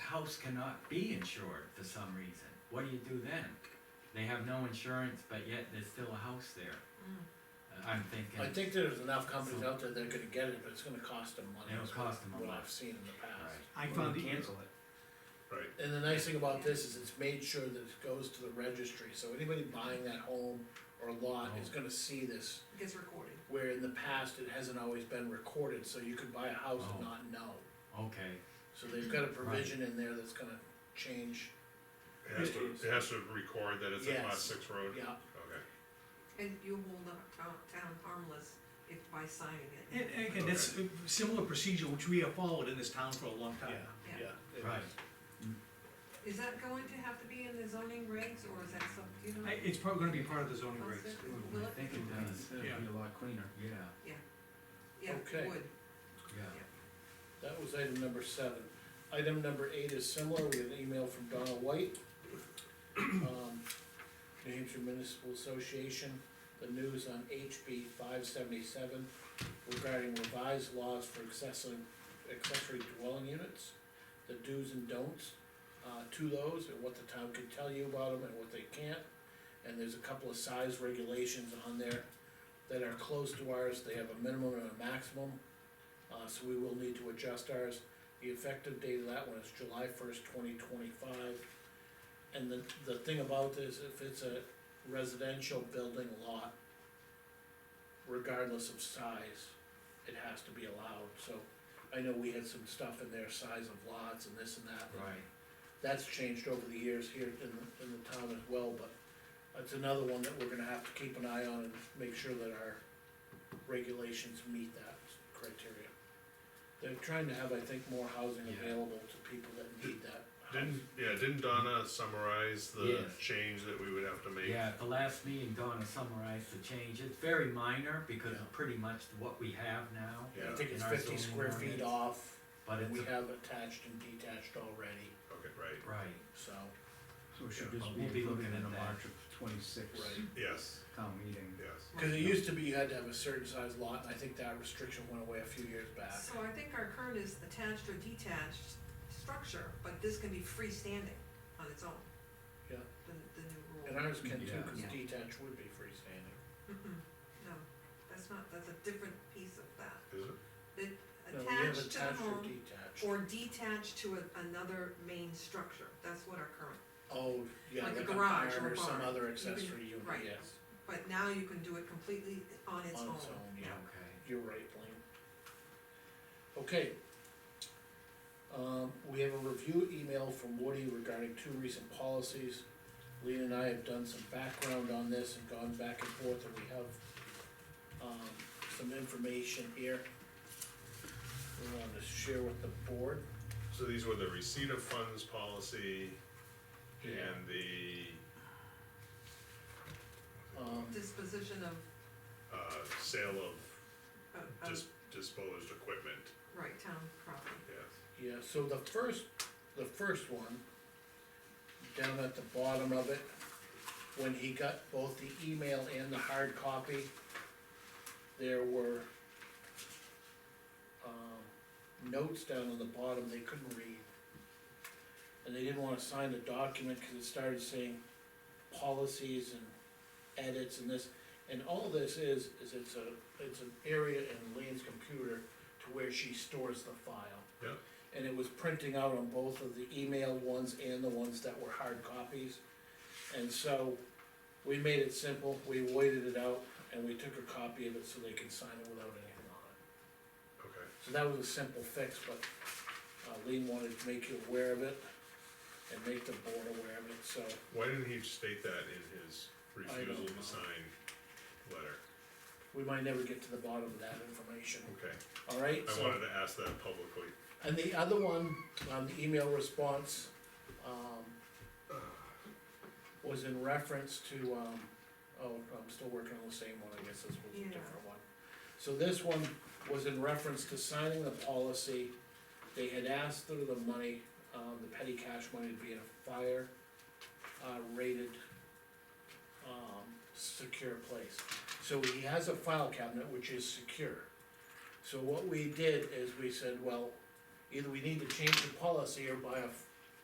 house cannot be insured for some reason, what do you do then? They have no insurance, but yet there's still a house there. Mm. Uh, I'm I thinking, think there's enough companies out there that are gonna get it, but it's gonna cost them money. It'll is what- cost them a What lot. I've seen in the past. Right. I Well, found e- you it, Cancel it. right, And the nice thing about this is it's made sure that it goes to the registry, so anybody buying that home or lot is gonna see this. It gets recorded. Where in the past, it hasn't always been recorded, so you could buy a house and Oh. not know. okay, So they've got a provision in there that's gonna change, it has to, it has to record that it's a class Yes. six road, yeah, okay, And you hold the town- town harmless if by signing it. and, and again, that's a similar procedure which we have followed in this town for a long yeah, time. yeah. right, Is that going to have to be in the zoning regs, or is that some, do you know? I- It's probably gonna be part of the zoning What's regs. it? Will I it? think it does, It'd be a lot cleaner. yeah, Yeah, Okay. it would. yeah. That was item number seven. Item number eight is similar, we had an email from Donna White. um, New Hampshire Municipal Association, the news on HB five seventy-seven regarding revised laws for accessory, accessory dwelling units, the do's and don'ts, uh, to those, and what the town can tell you about them and what they can't. And there's a couple of size regulations on there that are close to ours, they have a minimum and a maximum. Uh, so we will need to adjust ours. The effective date of that one is July first, twenty twenty-five. And the, the thing about this, if it's a residential building lot, regardless of size, it has to be allowed, so I know we had some stuff in there, size of lots and this and that. Right, That's changed over the years here in, the- in the town as well, but it's another one that we're gonna have to keep an eye on and make sure that our regulations meet that criteria. They're trying to have, I think, more housing Yeah. available to people that need that. housing. didn't, yeah, didn't Donna summarize the Yes. change that we would have to make? yeah, at the last meeting, Donna summarized the change, it's very minor, because Yeah. it's pretty much what we have now. I Yeah, think it's in our fifty zoning square feet ordinance. off, But it's, we a- have attached and detached already, okay, right, right, so, So it should Yeah, but just we'll be be included looking in at the that. March of twenty-six Right. yes, town meeting. yes. cause it used to be you had to have a certain size lot, and I think that restriction went away a few years back. So I think our current is attached or detached structure, but this can be freestanding on its own. Yeah. The, the new And rule. ours can too, Yeah. cause Yeah. detached would be freestanding. Mm-mm, Mm-hmm. No, that's not, that's a different piece of that. Is it? No, we have Attached to the attached or home detached. or detached to a- another main structure, that's what our current, Oh, yeah, like a like a garage barn or a or some barn. other You can- accessory unit, right. yes, but now you can do it completely on its On own. its own, yeah. okay. you're right, Blaine. Okay. Um, we have a review email from Woody regarding two recent policies. Lean and I have done some background on this and gone back and forth, and we have, um, some information here. We wanted to share with the board. So these were the receipt of funds policy and the, Um, Disposition of, uh, sale of Um. of, of, dis- disposed equipment, right, town property. yes, Yeah, so the first, the first one, down at the bottom of it, when he got both the email and the hard copy, there were um, notes down on the bottom they couldn't read. And they didn't wanna sign the document, cause it started saying policies and edits and this. And all this is, is it's a, it's an area in Lean's computer to where she stores the file yeah. and it was printing out on both of the email ones and the ones that were hard copies. And so, we made it simple, we waited it out, and we took a copy of it so they could sign it without anything on it. Okay, So that was a simple fix, but, uh, Lean wanted to make you aware of it, and make the board aware of it, so, why didn't he state that in his don't refusal know. to sign letter? we might never get to the bottom of that information, Okay, alright? I So- wanted to ask that publicly, And the other one, on the email response, um, was in reference to, um, oh, I'm still working on the same one, I guess this was a Yeah. different one. So this one was in reference to signing the policy, they had asked for the money, um, the petty cash money to be in a fire, uh, rated, um, secure place. So he has a file cabinet which is secure. So what we did is we said, well, either we need to change the policy or buy a f-